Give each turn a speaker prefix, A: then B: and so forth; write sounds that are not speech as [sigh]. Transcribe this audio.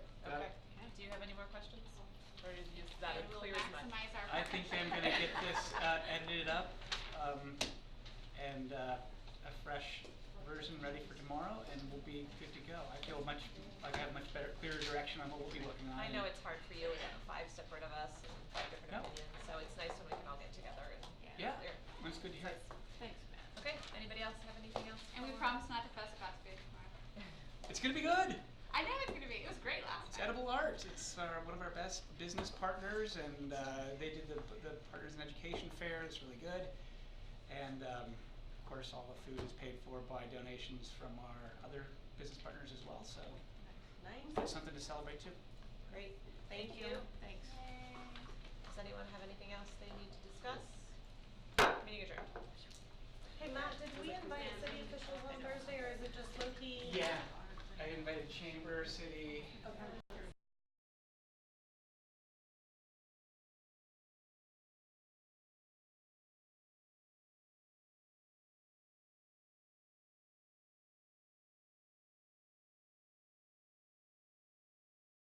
A: questions?
B: Or is just that it clears
A: We'll
B: my?
A: maximize our.
C: I think I'm gonna get
A: [laughs]
C: this uh, edited up um, and uh, a fresh version ready for tomorrow, and we'll be good to go. I feel much, like I have much better, clearer direction on what we'll be working on.
D: I know it's hard for you, we got five separate of us, and five
C: No.
D: different opinions, so it's nice when we can all get together and.
C: Yeah,
D: clear.
C: it's good to hear.
E: Thanks, Matt.
D: Okay, anybody else have anything else?
A: And we
D: before-
A: promise not to fuss about the food tomorrow.
C: It's gonna be good.
A: I know it's gonna be, it was great last
C: It's
A: time.
C: Edible Arts. It's uh, one of our best business partners, and uh, they did the, the Partners in Education Fair. It's really good. And um, of course, all the food is paid for by donations from our other business partners as well. So
D: Nice,
C: that's something to celebrate too.
D: great, thank you.
E: Thanks.
D: Does anyone have anything else they need to discuss? Meeting adjourned.
F: Hey Matt, did we invite city officials on Thursday or is it just Loki?
C: Yeah, I invited Chamber, City,
F: Okay.